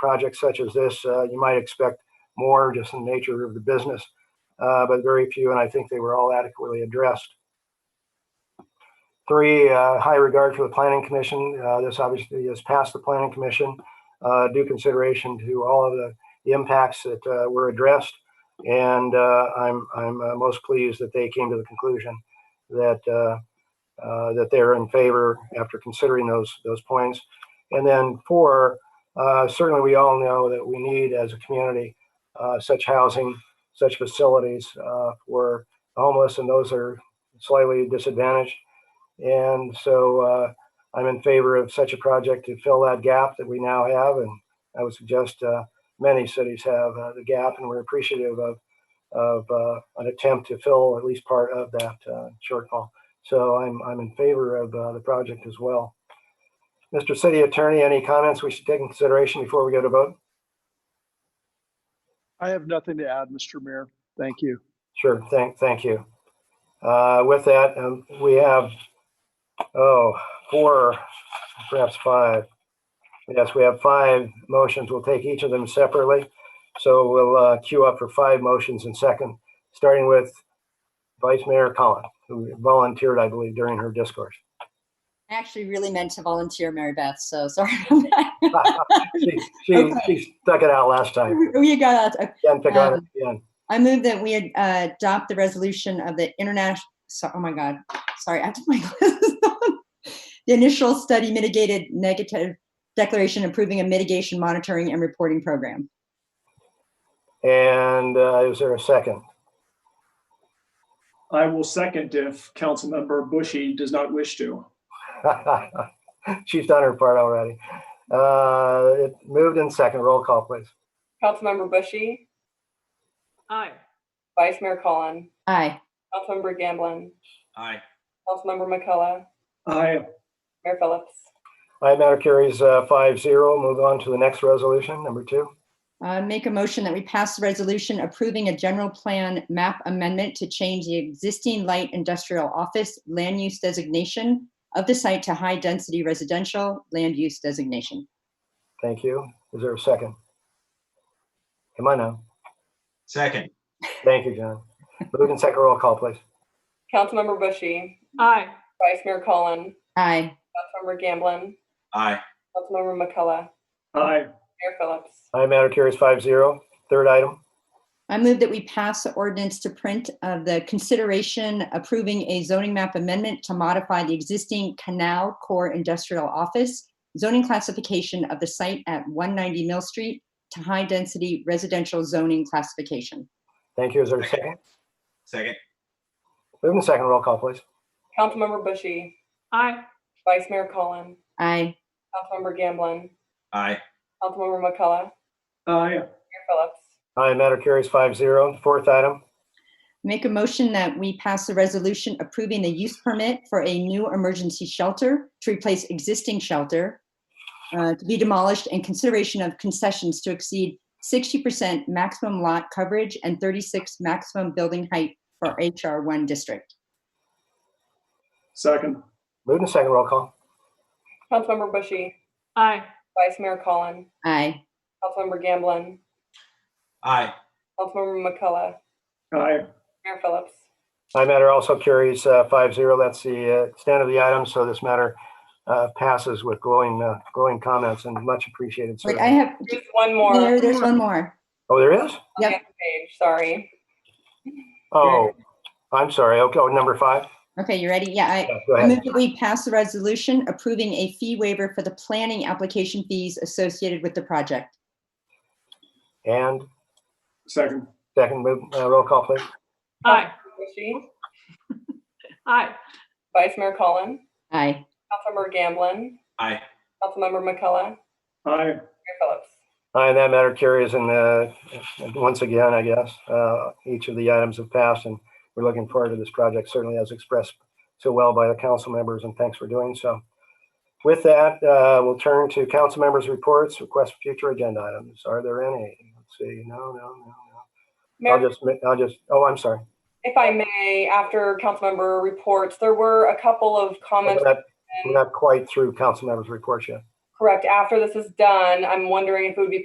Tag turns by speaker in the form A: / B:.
A: projects such as this, uh, you might expect more just in the nature of the business, uh, but very few, and I think they were all adequately addressed. Three, uh, high regard for the planning commission. Uh, this obviously is past the planning commission. Uh, due consideration to all of the, the impacts that uh, were addressed, and uh, I'm I'm uh, most pleased that they came to the conclusion that uh, uh, that they're in favor after considering those those points. And then four, uh, certainly, we all know that we need, as a community, uh, such housing, such facilities uh, for the homeless and those that are slightly disadvantaged. And so, uh, I'm in favor of such a project to fill that gap that we now have, and I would suggest uh, many cities have uh, the gap, and we're appreciative of of uh, an attempt to fill at least part of that uh, shortfall. So, I'm I'm in favor of uh, the project as well. Mr. City Attorney, any comments we should take into consideration before we go to vote?
B: I have nothing to add, Mr. Mayor. Thank you.
A: Sure, thank, thank you. Uh, With that, um, we have, oh, four, perhaps five. Yes, we have five motions. We'll take each of them separately. So we'll uh, queue up for five motions in second, starting with Vice Mayor Collin, who volunteered, I believe, during her discourse.
C: I actually really meant to volunteer, Mary Beth, so sorry about that.
A: She, she she stuck it out last time.
C: We got that.
A: Then pick on it again.
C: I move that we uh, adopt the resolution of the international, oh my God, sorry, I have to put my glasses on. The initial study mitigated negative declaration approving a mitigation monitoring and reporting program.
A: And uh, is there a second?
B: I will second if Councilmember Bushy does not wish to.
A: She's done her part already. Uh, it moved in second. Roll call, please.
D: Councilmember Bushy,
E: Aye.
D: Vice Mayor Collin,
C: Aye.
D: Councilmember Gamblin,
E: Aye.
D: Councilmember McCullough,
B: I,
D: Mayor Phillips.
A: Item matter carries uh, five zero. Move on to the next resolution, number two.
C: I Uh, make a motion that we pass the resolution approving a general plan map amendment to change the existing light industrial office land use designation of the site to high-density residential land use designation.
A: Thank you. Is there a second? Come on now.
F: Second,
A: Thank you, John. Moved in second. Roll call, please.
D: Councilmember Bushy,
E: Aye.
D: Vice Mayor Collin,
C: Aye.
D: Councilmember Gamblin,
F: aye,
D: Councilmember McCullough,
B: I,
D: Mayor Phillips.
A: Item matter carries five zero. Third item.
C: I move that we pass the ordinance to print of the consideration approving a zoning map amendment to modify the existing Canal Core Industrial Office zoning classification of the site at 190 Mill Street to high-density residential zoning classification.
A: Thank you. Is there a second?
F: second,
A: Moved in second. Roll call, please.
D: Councilmember Bushy,
E: Aye.
D: Vice Mayor Collin,
C: Aye.
D: Councilmember Gamblin,
F: aye,
D: Councilmember McCullough,
B: I,
D: Mayor Phillips.
A: Item matter carries five zero. Fourth item.
C: Make a motion that we pass a resolution approving a use permit for a new emergency shelter to replace existing shelter uh, to be demolished in consideration of concessions to exceed 60% maximum lot coverage and 36 maximum building height for HR1 district.
B: second,
A: Moved in second. Roll call.
D: Councilmember Bushy,
E: Aye.
D: Vice Mayor Collin,
C: Aye.
D: Councilmember Gamblin,
F: aye,
D: Councilmember McCullough,
B: I,
D: Mayor Phillips.
A: Item matter also carries five zero. That's the uh, stand of the item, so this matter uh, passes with glowing, uh, glowing comments and much appreciated
C: Wait, I
A: service.
C: have,
D: There's one
C: Mayor,
D: more
C: there's one more.
A: Oh, there is?
C: Yep.
D: page, sorry.
A: Oh, I'm sorry. Okay, oh, number five.
C: Okay, you ready? Yeah, I,
A: Yeah, Go
C: I
A: ahead.
C: move that we pass the resolution approving a fee waiver for the planning application fees associated with the project.
A: And
B: second,
A: second, move, uh, roll call, please.
E: Aye.
D: Bushy,
E: Aye.
D: Vice Mayor Collin,
C: Aye.
D: Councilmember Gamblin,
F: aye,
D: Councilmember McCullough,
B: I,
D: Mayor Phillips.
A: Aye, and that matter carries and, uh, once again, I guess, uh, each of the items have passed and we're looking forward to this project, certainly as expressed so well by the council members and thanks for doing so. With that, uh, we'll turn to council members' reports, request for future agenda items. Are there any? Let's see. No, no, no, no.
D: Mayor
A: I'll just, I'll just, oh, I'm sorry.
D: If I may, after councilmember reports, there were a couple of
A: We're
D: comments.
A: not, we're not quite through council members' reports yet.
D: Correct, after this is done, I'm wondering if it would be